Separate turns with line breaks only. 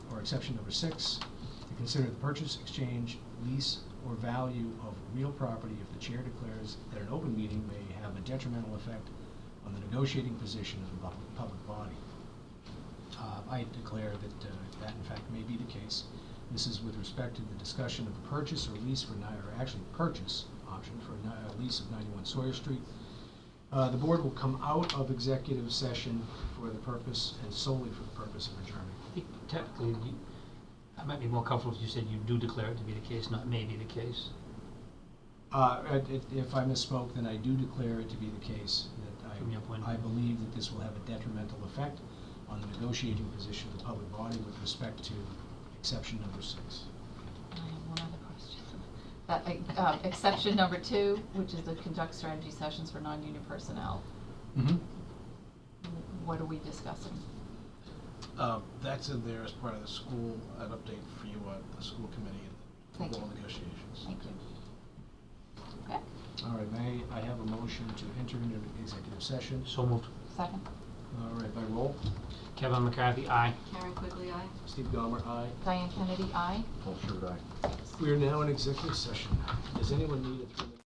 exception number six, to consider the purchase, exchange, lease, or value of real property if the chair declares that an open meeting may have a detrimental effect on the negotiating position of the bu- public body. Uh, I declare that uh, that in fact may be the case. This is with respect to the discussion of the purchase or lease for, ni- or actually purchase option for a ni- a lease of 91 Sawyer Street. Uh, The board will come out of executive session for the purpose, and solely for the purpose of adjournment.
I think Technically, you, I might be more comfortable if you said you do declare it to be the case, not may be the case.
Uh, i- i- If I misspoke, then I do declare it to be the case that
From your point of
I, I
view.
believe that this will have a detrimental effect on the negotiating position of the public body with respect to exception number six.
I have Um, one other question. That, uh, exception number two, which is to conduct strategy sessions for non-union personnel, what are we discussing?
Um, That's in there as part of the school, an update for you on the school committee and
Thank
the
you.
goal negotiations.
Thank you. Okay,
All right, may I have a motion to enter into executive session?
So moved.
second,
All right, by roll,
Kevin McCarthy, aye.
Karen Quigley, aye.
Steve Gomer, aye.
Diane Kennedy, aye.
We are now in executive session. Does anyone need a three-minute